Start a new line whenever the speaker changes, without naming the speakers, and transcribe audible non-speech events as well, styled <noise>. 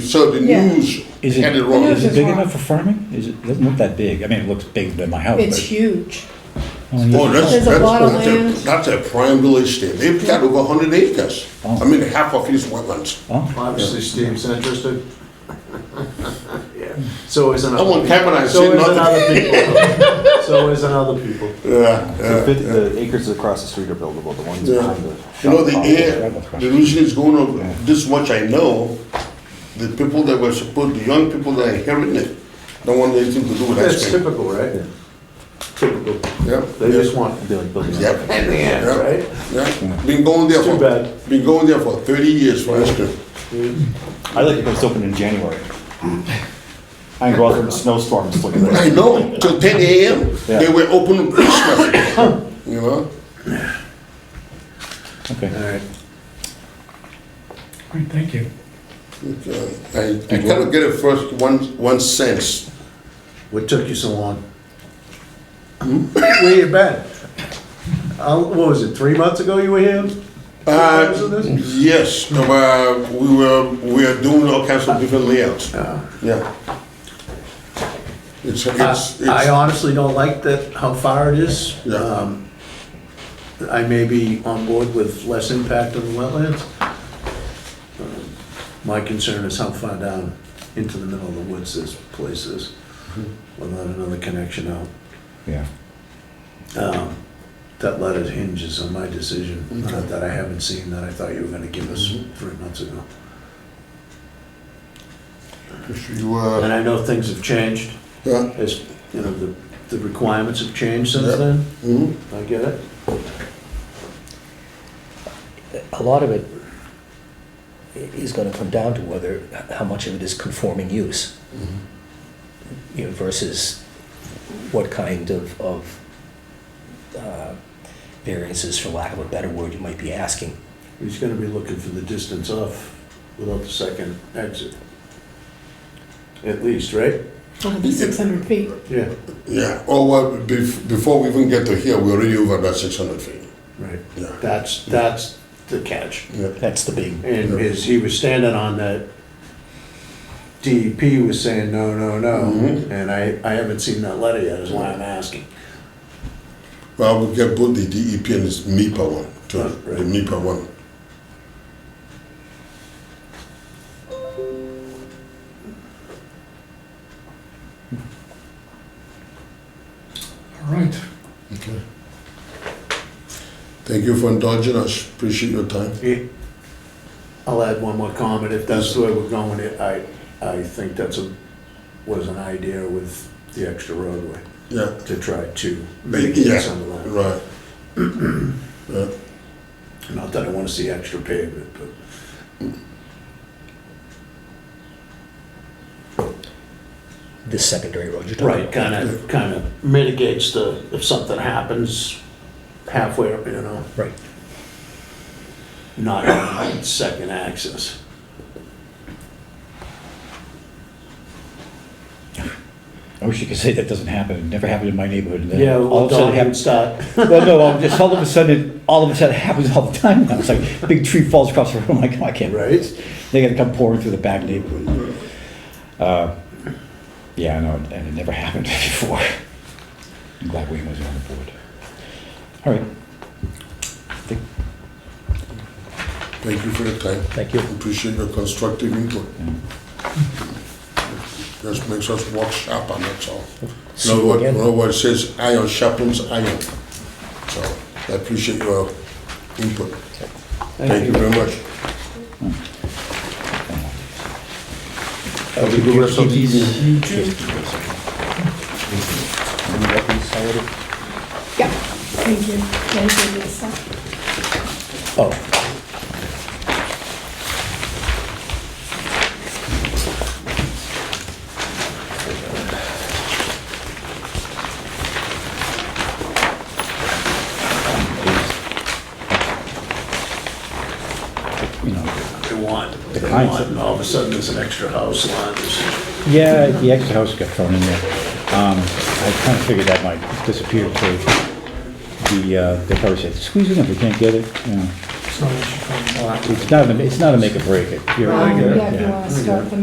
so the
Yeah.
news
Is it,
had it
The
wrong.
news
is it big
wrong.
enough for farming? Is it, doesn't look that big. I mean, it looks bigger than my house,
It's
but.
huge.
only-
Oh, that's,
There's a
that's,
lot of
that's their-
land.
that's their prime village there. They've got over hundred acres.
Oh.
I mean, half of it is wetlands.
Oh,
Obviously, Steve's interested. <laughs> Yeah. So is another.
I want Kevin, I
So
said
is
nothing.
another people. <laughs> So is another people.
Yeah,
The
yeah.
fif- The acres across the street are buildable, the ones
Yeah.
behind the.
You know, the
shop
air, the reason it's going up, this much I know, the people that were supposed, the young people that are hearing it, don't want anything to do with ice
That's
cream.
typical, right? Typical.
Yeah,
They
yeah,
just want.
probably. They're like building
Yep.
up.
And the end,
Yeah.
right?
yeah. Been going there
It's too
for,
bad.
been going there for thirty years for ice cream.
I like it when it's open
<laughs>
in January. I can go out there in a snowstorm and look at
I
that.
know, till ten AM, they
Yeah.
were open on
<coughs>
Christmas, you know?
okay.
Alright.
Great, thank you.
I, I kind of get it first, one, one sense.
What took you so long? Hmm? Where you been? Uh, what was it, three months ago you were here?
Uh,
Because of this?
yes, uh, we were, we are doing all kinds of different layouts, yeah. Uh, It's, it's,
Uh, I
it's,
honestly don't like that, how far it is.
Yeah.
Um, I may be on board with less impact on the wetlands. Um, My concern is how far down into the middle of the woods this place is,
Mm-hmm.
without another connection out.
Yeah.
Um, That letter hinges on my decision uh, that I haven't seen that I thought you were gonna give us
Mm-hmm.
three months ago.
you, uh,
And I know things have changed,
yeah,
as, you know, the, the requirements have changed since then,
mhm.
I get it.
a lot of it is gonna come down to whether, how much of it is conforming use. You know, versus what kind of, of, uh, variances, for lack of a better word, you might be asking.
He's gonna be looking for the distance off without the second exit. At least, right?
It'll be 600 feet.
Yeah.
Yeah, oh, well, bef- before we even get to here, we're already over that six hundred feet.
Right.
Yeah.
That's, that's the catch.
That's the big,
And as he was standing on that, DEP was saying, no, no, no,
Mhm.
and I, I haven't seen that letter yet, is why I'm asking.
Well, we get both the DEP and this MIPA one, too, the
Right.
MIPA one.
All right.
Okay. Thank you for indulging us, appreciate your time.
It- I'll add one more comment, if that's the way we're going, it, I, I think that's a, was an idea with the extra roadway,
Yeah,
to try to
Yeah.
mitigate some of that.
right. <clears throat> Yeah.
Not that I wanna see extra pavement, but
this secondary road you're talking
right,
about.
kinda, kinda mitigates the, if something happens halfway up, you know,
Right.
not on second access.
I wish you could say that doesn't happen. It never happened in my neighborhood. and then
Yeah,
all
well,
of a sudden it
don't
happens.
start.
Well, no, I'm just, all of a sudden, it- all of a sudden it happens all the time. now. It's like, a big tree falls across the road. I'm like, oh, I can't.
Right.
They gotta come pouring through the back neighborhood. Uh, Yeah, I know, and it never happened <laughs> before. I'm glad Wayne was on the board. All right. I think
Thank you for your time.
Thank you.
Appreciate your constructive input.
Mm.
Just makes us work sharper, that's all.
See
No,
you
what,
again.
no, what it says iron sharpens iron. So I appreciate your input. Thank you very much.
Have a good rest of the evening.
Yeah. Thank you. Thank you, Um, Lisa.
Oh.
You know,
They want, they
kinds
want,
of-
and all of a sudden there's an extra house line, there's-
Yeah, the extra house got thrown in there. Um, I kind of figured that might disappear for the, uh, they probably said, squeeze it in if we can't get it, you know.
It's not an issue for me.
It's not, a- it's not a make or break it. You're-
Um,
you're-
Yeah, if you want to start the